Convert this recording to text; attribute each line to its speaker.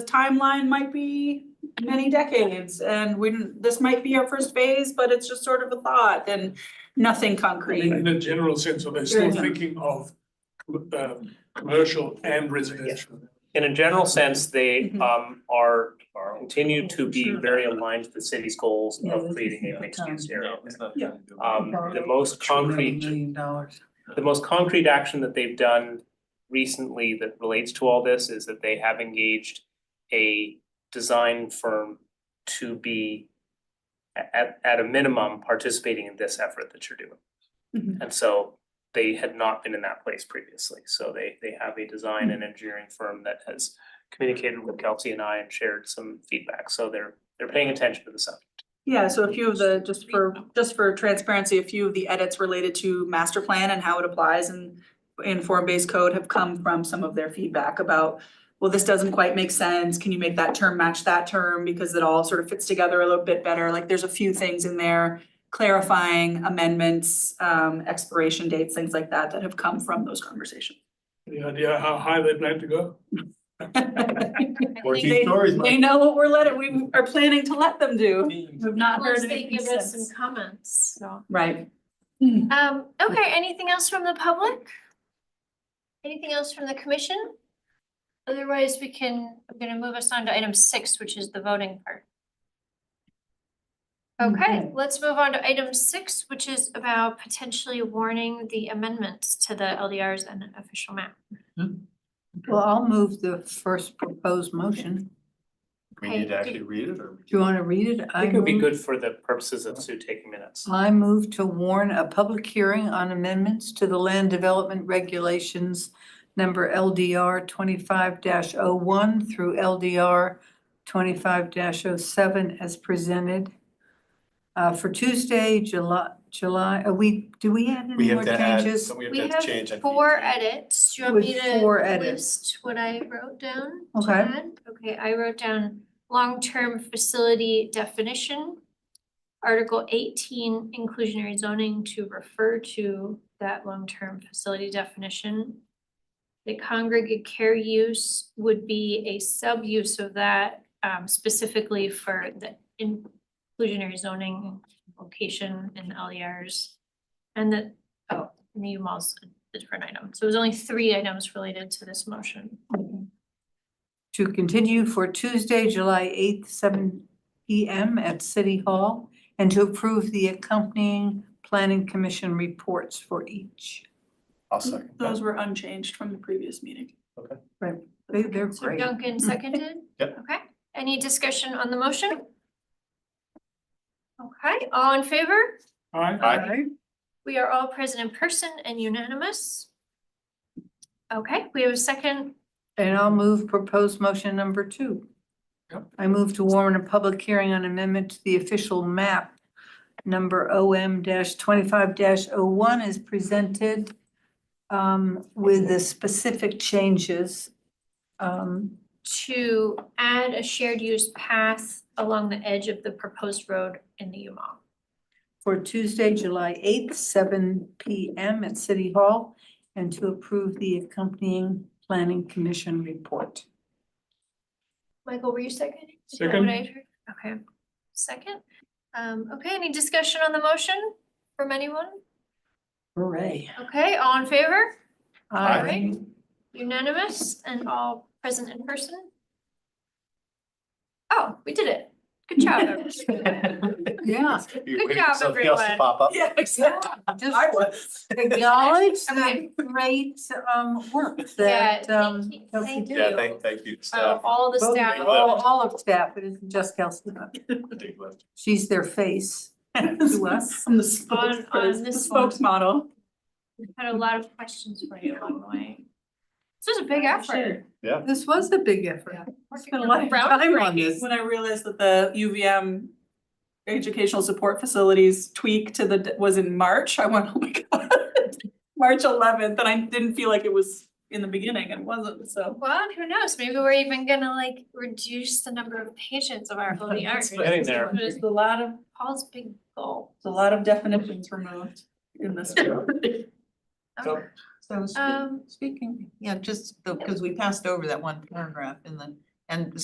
Speaker 1: the timeline might be many decades and we, didn't- this might be our first phase, but it's just sort of a thought and nothing
Speaker 2: In
Speaker 1: concrete.
Speaker 2: in a general sense, are they still
Speaker 1: Right.
Speaker 2: thinking of um commercial and residential?
Speaker 3: in a general
Speaker 4: Mm-hmm.
Speaker 3: sense, they
Speaker 1: Mhm.
Speaker 3: um are are continue to be
Speaker 1: Sure.
Speaker 3: very aligned to the city's goals
Speaker 4: Yeah, this
Speaker 3: of
Speaker 4: is
Speaker 3: creating a
Speaker 4: not
Speaker 3: mixed use
Speaker 4: done.
Speaker 3: area.
Speaker 1: Yeah.
Speaker 3: Um the most
Speaker 4: $200
Speaker 3: concrete,
Speaker 4: Million dollars.
Speaker 3: the most concrete action that they've done recently that relates to all this is that they have engaged a design firm to be a- at at a minimum participating in this effort that you're doing.
Speaker 1: Mhm.
Speaker 3: And so they had not been in that place previously, so they they have a design and engineering firm that has communicated with Kelsey and I and shared some feedback, so they're they're paying attention to the subject.
Speaker 1: Yeah, so a few of the, just for, just for transparency, a few of the edits related to master plan and how it applies and in form-based code have come from some of their feedback about, well, this doesn't quite make sense. Can you make that term match that term? Because it all sort of fits together a little bit better. Like, there's a few things in there clarifying amendments, um, expiration dates, things like that, that have come from those conversations.
Speaker 2: Any idea how high they plan to go?
Speaker 1: Fourteen they-
Speaker 5: stories.
Speaker 1: They know what we're letting, we are planning to let them do. We've not heard
Speaker 6: Once they
Speaker 1: anything
Speaker 6: give us some
Speaker 1: since.
Speaker 6: comments, so.
Speaker 1: Right.
Speaker 6: Um, okay, anything else from the public? Anything else from the commission? Otherwise, we can, I'm gonna move us on to item six, which is the voting part. Okay, let's move on to item six, which is about potentially warning the amendments to the LDRs and official map.
Speaker 4: Well, I'll move the first proposed motion.
Speaker 5: We need to actually read it or?
Speaker 4: Do you want to read it?
Speaker 3: I think it would
Speaker 4: Mm-hmm.
Speaker 3: be good for the purposes of Sue taking minutes.
Speaker 4: I move to warn a public hearing on amendments to the land development regulations number LDR twenty-five oh one through LDR twenty-five 7 as presented uh, for Tuesday, July, July, are we, do we have
Speaker 5: We
Speaker 4: any more
Speaker 5: have to add,
Speaker 4: changes?
Speaker 5: so we
Speaker 6: We
Speaker 5: have to
Speaker 6: have
Speaker 5: change. I
Speaker 6: four
Speaker 5: think.
Speaker 6: edits. Do you want
Speaker 4: With
Speaker 6: me
Speaker 4: four
Speaker 6: to
Speaker 4: edits.
Speaker 6: list what I wrote down?
Speaker 4: Okay.
Speaker 6: Jen? Okay, I wrote down long-term facility definition. Article eighteen inclusionary zoning to refer to that long-term facility definition. The congregate care use would be a sub-use of that um, specifically for the inclusionary zoning location in LERs. And that, oh, new malls, a different item. So it was only three items related to this motion.
Speaker 4: to continue for Tuesday, July eighth, seven P M at City Hall, and to approve the accompanying planning commission reports for each.
Speaker 5: I'll second. that.
Speaker 1: Those were unchanged from the previous meeting.
Speaker 4: They, they're
Speaker 6: So
Speaker 4: great.
Speaker 6: Duncan seconded?
Speaker 5: Yep.
Speaker 6: Okay, any discussion on the motion? Okay, all in favor?
Speaker 2: Alright,
Speaker 5: Aye.
Speaker 6: We are all present in person and unanimous. Okay, we have a second.
Speaker 4: And I'll move proposed motion number two.
Speaker 2: Yep.
Speaker 4: I move to warn a public hearing on amendment to the official map number O M twenty-five dash is presented um, with the specific changes. Um,
Speaker 6: to add a shared use path along the edge of the proposed road in the U Mall.
Speaker 4: for Tuesday, July eighth, seven P M at City Hall, and to approve the accompanying planning commission report.
Speaker 6: Michael, were you seconding? Is that
Speaker 2: Second.
Speaker 6: what I heard? Okay, second. Um, okay, any discussion on the motion from anyone?
Speaker 4: Hooray.
Speaker 6: Okay, all in favor?
Speaker 5: Aye.
Speaker 6: Alright, unanimous and all present in person? Oh, we did it. Good job. everyone.
Speaker 4: Yeah.
Speaker 5: You're
Speaker 6: Good
Speaker 5: waiting
Speaker 6: job,
Speaker 5: for something else to
Speaker 6: everyone.
Speaker 5: pop up.
Speaker 1: Yeah, exactly.
Speaker 4: Just
Speaker 1: I was.
Speaker 4: acknowledge
Speaker 6: Okay.
Speaker 4: the great um work
Speaker 6: Yeah,
Speaker 4: that
Speaker 6: thank
Speaker 4: um
Speaker 6: you-
Speaker 4: Kelsey
Speaker 6: thank
Speaker 4: did.
Speaker 6: you.
Speaker 5: Yeah, thank, thank you,
Speaker 6: Uh,
Speaker 5: staff.
Speaker 6: all the
Speaker 4: Both-
Speaker 6: staff.
Speaker 4: All all of staff, it isn't just Kelsey,
Speaker 6: Oh.
Speaker 5: particular.
Speaker 4: she's their face to us.
Speaker 1: On the
Speaker 6: On-
Speaker 1: spokesperson,
Speaker 6: on
Speaker 1: the
Speaker 6: this one.
Speaker 1: spokesmodel.
Speaker 6: Had a lot of questions for you along the way. This was a big effort.
Speaker 4: This was a big effort.
Speaker 1: Yeah.
Speaker 4: Spent a lot of
Speaker 6: Round
Speaker 4: time on
Speaker 6: breaking.
Speaker 4: this.
Speaker 1: When I realized that the UVM educational support facilities tweak to the, was in March, I went, oh my god. March eleventh, and I didn't feel like it was in the beginning, and it wasn't, so.
Speaker 6: Well, who knows? Maybe we're even gonna like reduce the number of patients of our ODR.
Speaker 3: It's getting there.
Speaker 1: There's a lot of,
Speaker 6: Paul's big goal.
Speaker 1: a lot of definitions removed in this.
Speaker 6: Okay.
Speaker 7: So speak-
Speaker 6: Um,
Speaker 7: speaking, yeah, just because we passed over that one paragraph in the, and